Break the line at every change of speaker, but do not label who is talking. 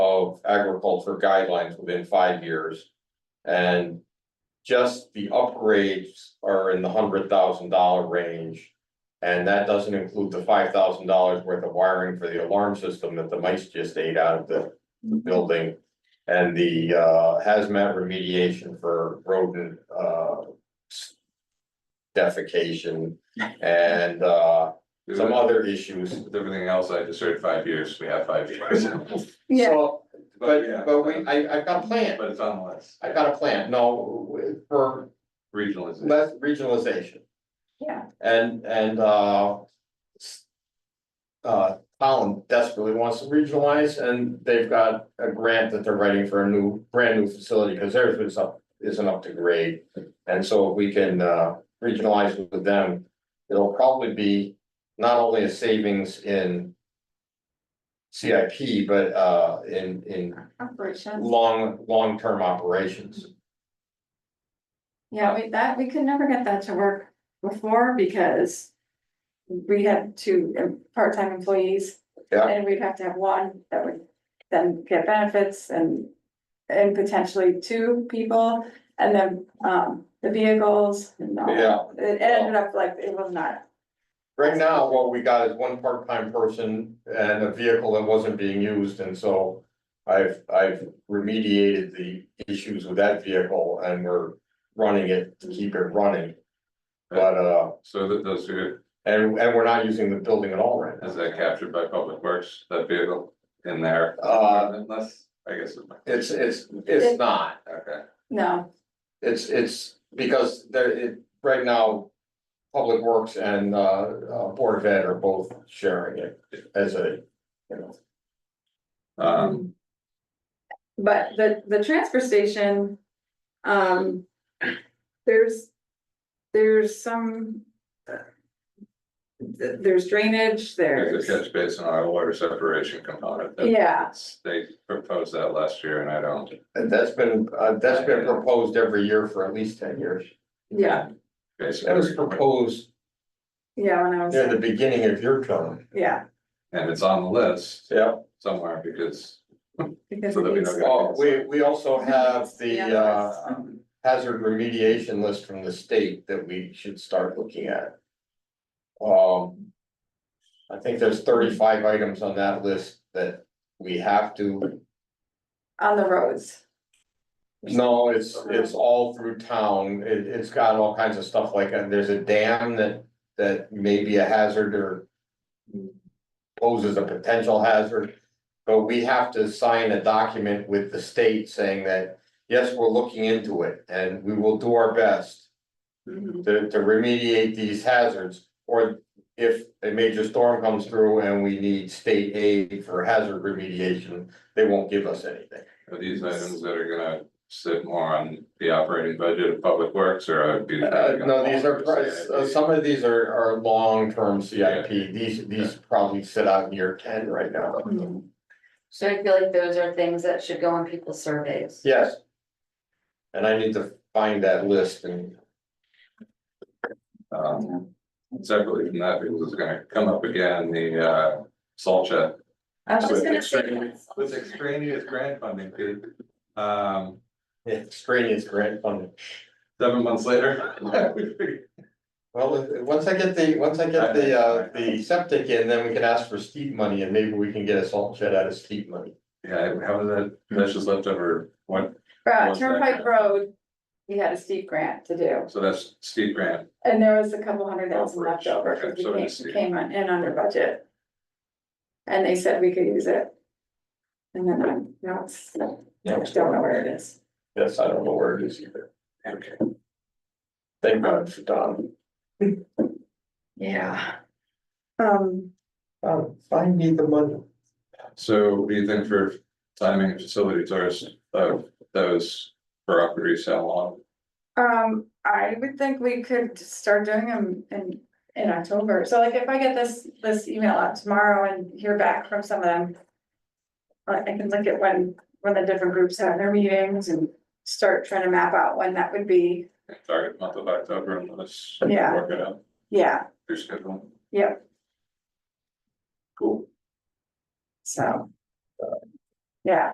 of agriculture guidelines within five years. And just the upgrades are in the hundred thousand dollar range. And that doesn't include the five thousand dollars worth of wiring for the alarm system that the mice just ate out of the, the building. And the uh, hazmat remediation for rodent, uh. s- Defecation and uh, some other issues.
With everything else, I just heard five years, we have five years.
Yeah,
So,
yeah,
But, but we, I, I've got a plan,
But it's on the list,
I've got a plan, no, for
regionalization.
less regionalization.
yeah,
And, and, uh. s- Uh, Holland desperately wants to regionalize and they've got a grant that they're writing for a new, brand new facility, cause theirs was up, isn't up to grade. And so if we can, uh, regionalize with them, it'll probably be not only a savings in. CIP, but, uh, in, in
operations,
long, long-term operations.
yeah, we, that, we could never get that to work before because. We had two um, part-time employees.
Yeah.
And we'd have to have one that would then get benefits and, and potentially two people, and then, um, the vehicles and all.
Yeah.
It ended up like, it was not,
Right now, what we got is one part-time person and a vehicle that wasn't being used, and so. I've, I've remediated the issues with that vehicle and we're running it to keep it running. But, uh,
So that those are,
and, and we're not using the building at all right now.
is that captured by Public Works, that vehicle in there?
Uh,
Unless, I guess, it might-
It's, it's, it's not,
okay,
no,
it's, it's because there, it, right now. Public Works and, uh, uh, Board of Ed are both sharing it as a, you know. Mm.
um,
but the, the transfer station, um, there's. There's some. uh, th- There's drainage,
there's
there's,
a catch basin on our water separation component. that-
yeah,
They proposed that last year and I don't.
And that's been, uh, that's been proposed every year for at least ten years.
yeah,
That was
Basically,
proposed
yeah, when I
near
was,
the beginning of your term.
yeah.
and it's on the list
Yeah.
somewhere because
because
So that we
it's-
don't get-
Oh, we, we also have the,
Yeah,
uh,
that's-
hazard remediation list from the state that we should start looking at. Um, I think there's thirty-five items on that list that we have to,
On the roads,
no, it's, it's all through town. It, it's got all kinds of stuff like, uh, there's a dam that, that may be a hazard or poses a potential hazard. But we have to sign a document with the state saying that, yes, we're looking into it and we will do our best
Mm-hmm.
Mhm.
to, to remediate these hazards. Or if a major storm comes through and we need state aid for hazard remediation, they won't give us anything.
are these items that are gonna sit more on the operating budget of Public Works or? are these-
Uh, no, these are, pri- uh, some of these are, are long-term CIP. These, these probably sit out in year ten right now.
Mhm.
So I feel like those are things that should go on people's surveys.
Yes. And I need to find that list and
Um, separately from that, because it's gonna come up again, the uh salt shed.
I was just
With
gonna say.
extraneous- With extraneous grant funding, Pete. Um,
extraneous grant funding.
seven months later.
Well, if- once I get the, once I get the, uh, the septic in, then we can ask for steep money and maybe we can get a salt shed out of steep money.
Yeah, how was that, that's just leftover, what,
Uh,
What's that
Turnpike
grant?
Road, we had a steep grant to do,
so that's steep grant,
and there was a couple hundred thousand
Overage.
left over, because
Okay, so
we
it's
came,
steep.
came on- in under budget. And they said we could use it. And then I'm, now it's, I just don't know where it is.
Yes, I don't know where it is either.
okay,
Thank God for Don.
Yeah. Um,
Don, find me the money.
so what do you think for timing and facility tours of those for properties, how long?
um, I would think we could start doing them in, in October, so like if I get this, this email out tomorrow and hear back from some of them. I, I can look at when, when the different groups have their meetings and start trying to map out when that would be,
Target month of October and let's
Yeah.
work it out,
yeah,
your schedule.
Yep.
Cool.
so. Yeah,